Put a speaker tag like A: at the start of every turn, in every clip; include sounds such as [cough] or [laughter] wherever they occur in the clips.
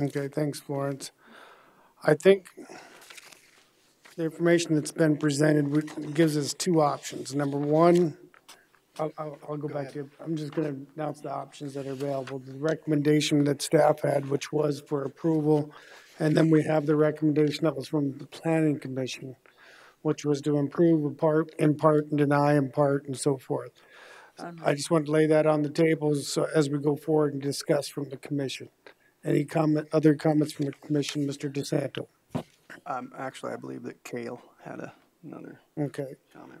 A: Okay, thanks, Florence. I think the information that's been presented would- gives us two options. Number one, I'll, I'll, I'll go back to, I'm just gonna announce the options that are available. The recommendation that staff had, which was for approval, and then we have the recommendation that was from the planning commission, which was to improve in part, in part, and deny in part, and so forth. I just want to lay that on the table so, as we go forward and discuss from the commission. Any comment, other comments from the commission, Mr. DeSanto?
B: Um, actually, I believe that Kale had a- another
A: Okay,
B: comment.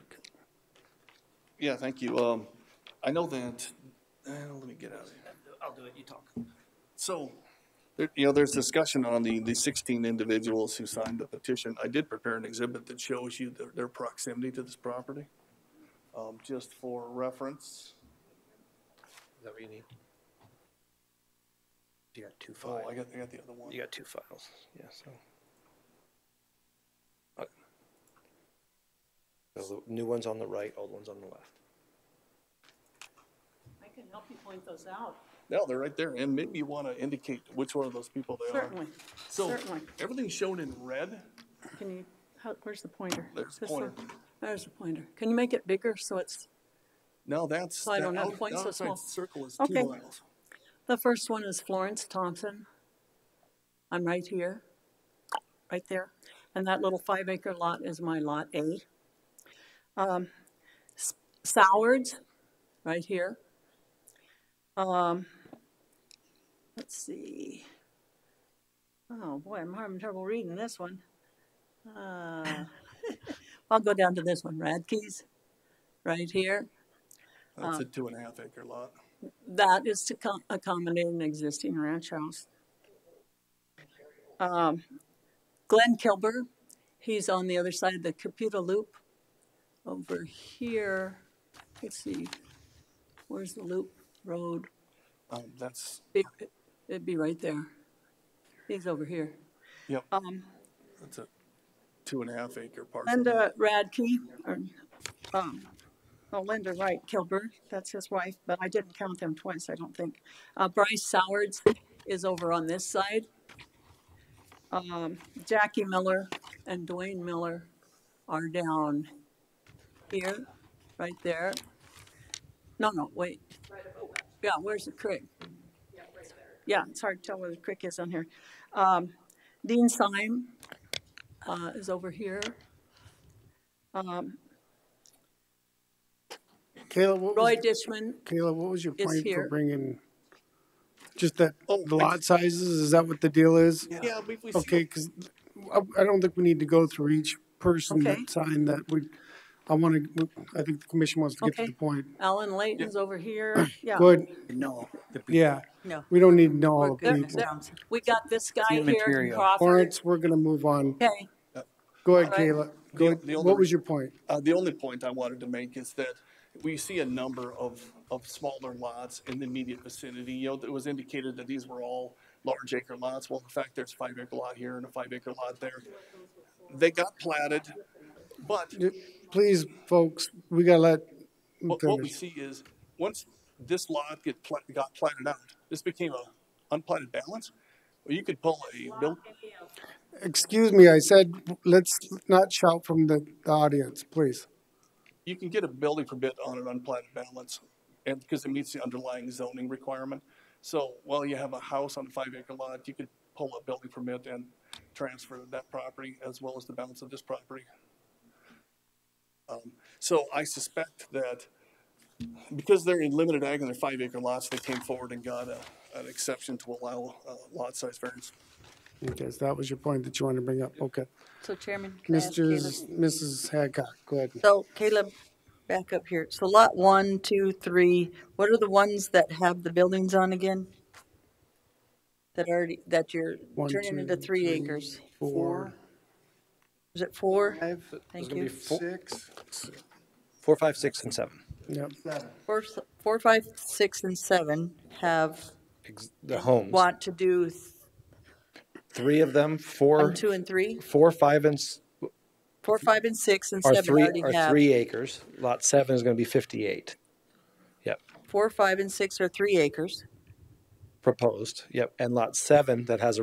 C: Yeah, thank you. Um, I know that, uh, let me get out of here.
D: I'll do it, you talk.
C: So, there, you know, there's discussion on the, the sixteen individuals who signed the petition. I did prepare an exhibit that shows you their, their proximity to this property. Um, just for reference.
D: Is that what you need? You got two
C: Oh,
D: files.
C: I got, I got the other one.
D: You got two files, yeah, so. Uh, so the New one's on the right, old one's on the left.
E: I can help you point those out,
C: No, they're right there. And maybe you want to indicate which one of those people they are.
E: certainly,
C: So,
E: certainly.
C: everything's shown in red.
E: Can you, how, where's the pointer?
C: There's the
E: This one?
C: pointer.
E: There's the pointer. Can you make it bigger so it's,
C: No, that's.
E: Well, I don't
C: that
E: have
C: out-
E: points so
C: outside
E: small.
C: Circle is
E: Okay.
C: two miles.
E: the first one is Florence Thompson. I'm right here, right there. And that little five acre lot is my lot A. Um, S- Sowards, right here. Um, let's see. Oh, boy, I'm having trouble reading this one. Uh, [laughs] I'll go down to this one, Radke's, right here.
C: That's
E: Um.
C: a two and a half acre lot.
E: That is to co- accommodate an existing ranch house. Um, Glenn Kilber, he's on the other side of the Caputa Loop. Over here, let's see, where's the loop road?
C: Um, that's,
E: It- It'd be right there. He's over here.
C: yep.
E: Um,
C: That's a two and uh, a half acre parcel.
E: Linda Radke, or, um, oh, Linda Wright Kilburg, that's his wife, but I didn't count them twice, I don't think. Uh, Bryce Sowards is over on this side. Um, Jackie Miller and Dwayne Miller are down here, right there. No, no, wait. Yeah, where's the creek? Yeah, it's hard to tell where the creek is on here. Um, Dean Syme, uh, is over here. Um,
A: Kayla, what
E: Roy
A: was,
E: Dishman,
A: Kayla, what was your
E: is
A: point for
E: here.
A: bringing? Just that,
C: Oh,
A: the lot sizes, is that what the deal is?
C: Yeah, we, we
A: Okay,
C: see,
A: because I, I don't think we need to go through each person
E: Okay.
A: that signed that. We, I want to, I think the commission wants to get to
E: Okay.
A: the point.
E: Alan Layton's over here, yeah.
A: Go ahead,
B: No.
A: yeah.
E: No.
A: We don't need to know all
E: We're
A: the
E: good.
A: people.
E: There- We got this guy
D: New
E: here,
D: material.
E: Crawford.
A: Lawrence, we're going to move on.
E: Okay,
A: Go ahead,
E: All right.
A: Kayla. Go ahead.
C: the
A: What
C: only-
A: was your point?
C: uh, the only point I wanted to make is that we see a number of, of smaller lots in the immediate vicinity. You know, it was indicated that these were all large acre lots. Well, in fact, there's five acre lot here and a five acre lot there. They got platted, but
A: Please, folks, we got to let him
C: what, what we
A: finish.
C: see is, once this lot get, pla- got platted out, this became a unplatted balance. Well, you could pull a, no,
A: Excuse me, I said, let's not shout from the the audience, please.
C: you can get a building permit on an unplatted balance, and, because it meets the underlying zoning requirement. So while you have a house on a five acre lot, you could pull a building permit and transfer that property as well as the balance of this property. Um, So I suspect that because they're in limited ag and they're five acre lots, they came forward and got a, an exception to allow uh, lot size variance.
A: Okay, so that was your point that you wanted to bring up. Okay.
F: So Chairman, can I ask Caleb?
A: Mr., Mrs. Hadcock, go ahead.
F: So Caleb, back up here. So lot one, two, three, what are the ones that have the buildings on again? That already, that you're
A: One,
F: turning
A: two,
F: into three
A: three.
F: acres?
A: Four.
F: Is it four?
B: Five,
F: Thank
D: gonna be
F: you.
D: four-
B: six,
D: Four, five, six, and seven.
A: Yep.
B: seven.
F: Four, s- four, five, six, and seven have,
D: Ex- The homes,
F: want to do th-
D: three of them,
F: one,
D: four,
F: two, and three?
D: four, five, and, s-
F: Four, five, and six, and
D: are
F: seven
D: three,
F: already
D: are
F: have.
D: three acres. Lot seven is gonna be fifty-eight. Yep,
F: Four, five, and six are three acres.
D: proposed, yep. And lot seven that has a